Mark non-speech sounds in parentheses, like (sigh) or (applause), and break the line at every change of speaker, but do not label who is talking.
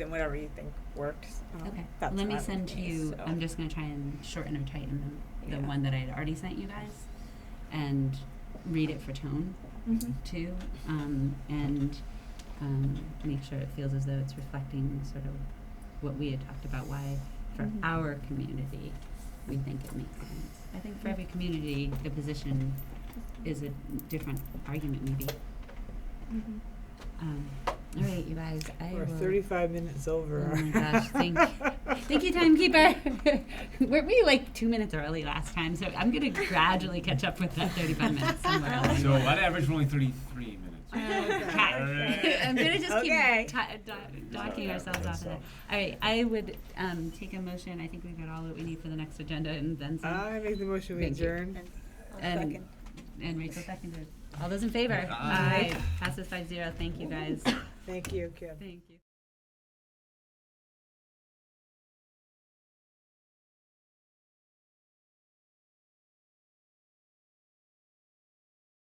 then whatever you think works. um,
Okay,
that's
let me
not the
send to
case,
you,
so.
I'm just gonna try and shorten or tighten the, the
Yeah.
one that I had already sent you guys and read it for tone
Mhm.
too, um, and, um, make sure it feels as though it's reflecting sort of what we had talked about, why for
Mhm.
our community, we think it makes sense. I think for every community, the position is a different argument maybe.
Mhm.
Um, all right, you guys, I
We're
will-
thirty-five minutes over.
Oh my gosh, thank, thank you, timekeeper. (laughs) Weren't we like two minutes early last time? So I'm gonna gradually catch up with that 35 minutes somewhere. along the
So
way.
on average, we're only 33 minutes.
Okay. I'm gonna just
Okay.
keep ta- do- docking
Yeah,
ourselves off of that. All right, I would um, take a motion. I think we've got all that we need for the next agenda, and then some.
I make the motion we
Thank you.
adjourn.
and,
second.
and Rachel seconded. All those in favor?
Aye.
Passes five zero. Thank you guys.
Thank you, Kim.
Thank you.